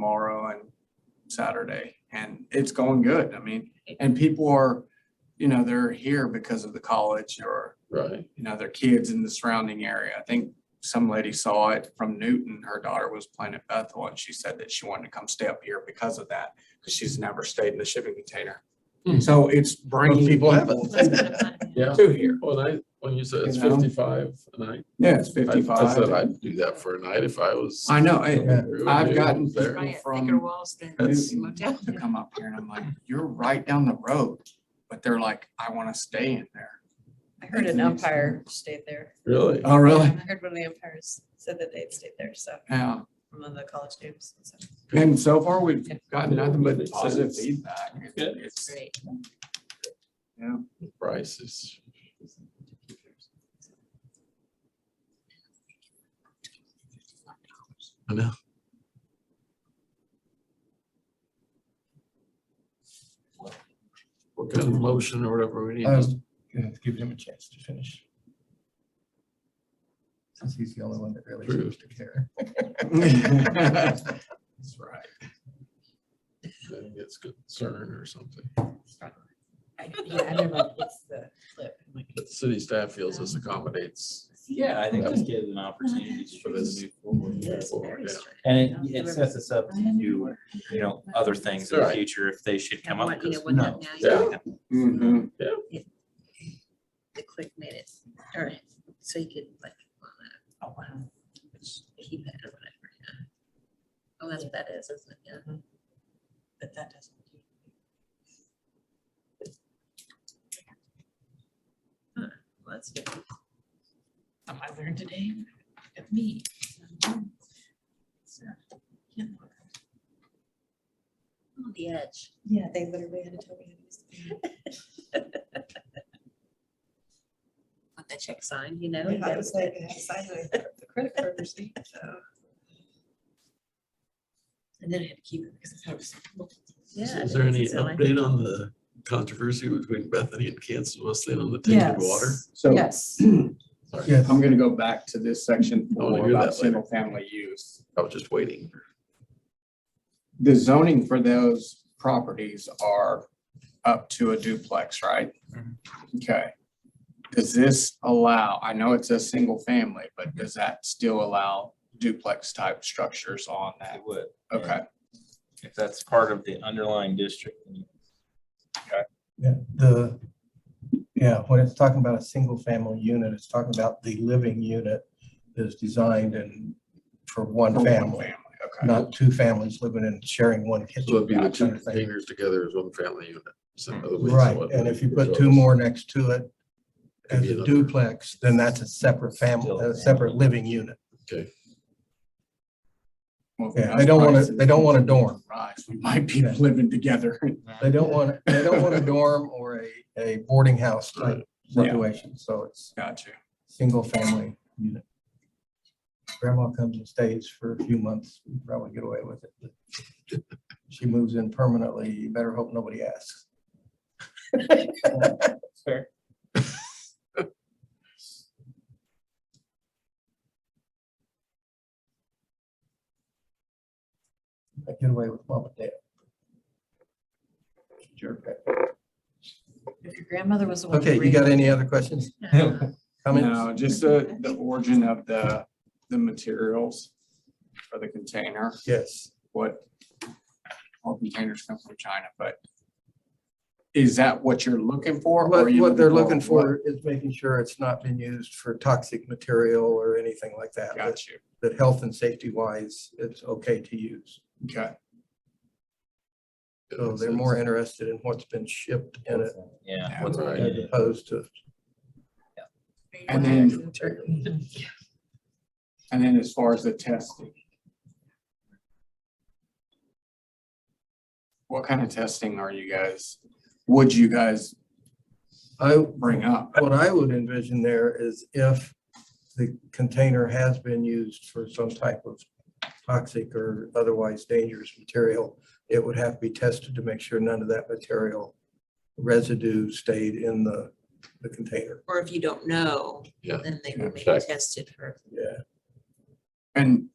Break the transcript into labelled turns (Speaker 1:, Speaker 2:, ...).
Speaker 1: tomorrow and Saturday, and it's going good. I mean, and people are, you know, they're here because of the college or,
Speaker 2: Right,
Speaker 1: you know, their kids in the surrounding area. I think some lady saw it from Newton. Her daughter was playing at Bethel, and she said that she wanted to come stay up here because of that, because she's never stayed in the shipping container.
Speaker 2: Hmm.
Speaker 1: So it's bringing
Speaker 2: Most
Speaker 1: people
Speaker 2: people haven't.
Speaker 1: to
Speaker 2: yeah.
Speaker 1: here.
Speaker 2: When I, when you said it's
Speaker 1: You know?
Speaker 2: fifty-five a night.
Speaker 1: Yeah, it's
Speaker 2: I- I said
Speaker 1: fifty-five.
Speaker 2: I'd do that for a night if I was.
Speaker 1: I know. I-
Speaker 2: Agree with
Speaker 1: I've
Speaker 2: you.
Speaker 1: gotten
Speaker 2: It's there.
Speaker 1: people
Speaker 3: Right,
Speaker 1: from-
Speaker 3: thicker walls than
Speaker 2: That's-
Speaker 1: Newton
Speaker 3: motel.
Speaker 1: to come up here and I'm like, you're right down the road, but they're like, I want to stay in there.
Speaker 4: I heard an umpire stayed there.
Speaker 2: Really?
Speaker 4: I
Speaker 1: Oh, really?
Speaker 4: heard one of the umpires said that they'd stayed there, so,
Speaker 1: Yeah.
Speaker 4: from one of the college games. and stuff.
Speaker 1: And so far, we've gotten nothing but positive feedback.
Speaker 2: Good.
Speaker 1: It's-
Speaker 3: Great.
Speaker 1: Yeah.
Speaker 2: Price is. I know. What kind of motion or whatever we need? Just-
Speaker 5: Um, yeah, give him a chance to finish. Since he's the only one that really
Speaker 2: True.
Speaker 5: seems to care.
Speaker 1: That's right.
Speaker 2: then It's concern or something.
Speaker 3: I- Yeah, I don't know, it's the clip. I'm like,
Speaker 2: But city staff feels this accommodates.
Speaker 6: Yeah, I think just give an opportunity for this to move forward.
Speaker 2: Yes.
Speaker 6: yeah.
Speaker 2: yeah.
Speaker 3: very strange.
Speaker 6: And it, it sets us up to do, you know, other things in the
Speaker 2: Right.
Speaker 6: future if they should come
Speaker 3: Have
Speaker 6: up.
Speaker 3: one, you know,
Speaker 6: because
Speaker 3: one
Speaker 6: who
Speaker 3: that
Speaker 6: knows?
Speaker 3: now
Speaker 2: Yeah.
Speaker 1: Mhm.
Speaker 3: The click made it, all right, so you could like. Oh, wow. Keep it or whatever, yeah. Oh, that's what that is, isn't it? Yeah.
Speaker 4: But that doesn't.
Speaker 3: Well, That's different. Something I learned today of me. So, yeah. On the edge.
Speaker 4: Yeah, they literally had to tell me.
Speaker 3: With the check sign, you know? you
Speaker 4: I
Speaker 3: gotta
Speaker 4: was
Speaker 3: put-
Speaker 4: like, I had to sign my the credit card receipt, so.
Speaker 3: And then I had to keep it because I thought it was.
Speaker 2: So
Speaker 3: Yeah.
Speaker 2: Is there any
Speaker 3: it's silly.
Speaker 2: update on the controversy between Bethany and Kansas Wesleyan on the tainted water?
Speaker 1: So
Speaker 4: Yes.
Speaker 2: Sorry,
Speaker 5: Yes,
Speaker 1: I'm going to go back to this section
Speaker 2: I wanna
Speaker 1: for
Speaker 2: hear
Speaker 1: about
Speaker 2: that later.
Speaker 1: single family use.
Speaker 2: I was just waiting.
Speaker 1: the zoning for those properties are up to a duplex, right?
Speaker 6: Mm-hmm.
Speaker 1: Okay. Does this allow, I know it's a single family, but does that still allow duplex type structures on that?
Speaker 6: It would.
Speaker 1: Okay,
Speaker 6: If that's part of the underlying district. then
Speaker 5: yeah, the, yeah, when it's talking about a single family unit, it's talking about the living unit that is designed and for
Speaker 1: for
Speaker 5: one
Speaker 1: one
Speaker 5: family,
Speaker 1: Okay,
Speaker 5: not two families living and sharing one
Speaker 2: So it'd
Speaker 5: kitchen.
Speaker 2: be the
Speaker 5: that
Speaker 2: two
Speaker 5: kind of thing.
Speaker 2: containers together as one family unit. So in other words,
Speaker 5: Right,
Speaker 2: what
Speaker 5: and
Speaker 2: we
Speaker 5: if you
Speaker 2: propose
Speaker 5: put two more next to it
Speaker 2: could
Speaker 5: as
Speaker 2: be
Speaker 5: a
Speaker 2: another-
Speaker 5: duplex, then that's a separate family,
Speaker 6: Still a
Speaker 5: a separate
Speaker 6: family.
Speaker 5: living unit.
Speaker 1: Well,
Speaker 5: Yeah, they don't wanna- they don't wanna dorm.
Speaker 1: Right, we might be living together.
Speaker 5: They don't want, they don't want a dorm or a, a boarding house type
Speaker 1: Yeah.
Speaker 5: situation, so it's
Speaker 1: Got you.
Speaker 5: single family unit. Grandma comes and stays for a few months, we probably get away with it. but She moves in permanently, you better hope nobody asks.
Speaker 6: Fair.
Speaker 5: I get away with mom and dad. Jerk.
Speaker 4: If your grandmother was the one.
Speaker 5: Okay, you got any other questions,
Speaker 3: Yeah.
Speaker 5: comments?
Speaker 1: No, just the, the origin of the, the materials for the container.
Speaker 5: Yes.
Speaker 1: what all containers come from China, but is that what you're looking for? or are
Speaker 5: What,
Speaker 1: you
Speaker 5: what they're
Speaker 1: what-
Speaker 5: looking for is making sure it's not been used for toxic material or anything like that. that-
Speaker 1: Got you.
Speaker 5: That health and safety wise, it's okay to use.
Speaker 1: Okay.
Speaker 5: So they're more interested in what's been shipped in it
Speaker 6: Yeah.
Speaker 1: Yeah.
Speaker 6: what's-
Speaker 2: Right.
Speaker 5: as opposed to
Speaker 1: And then, and then as far as the testing. What kind of testing are you guys, would you guys
Speaker 5: I,
Speaker 1: bring up?
Speaker 5: what I would envision there is if the container has been used for some type of toxic or otherwise dangerous material, it would have to be tested to make sure none of that material residue stayed in the, the container.
Speaker 3: Or if you don't know,
Speaker 2: Yeah.
Speaker 3: then they will
Speaker 2: Check.
Speaker 3: be tested for.
Speaker 5: Yeah.
Speaker 1: And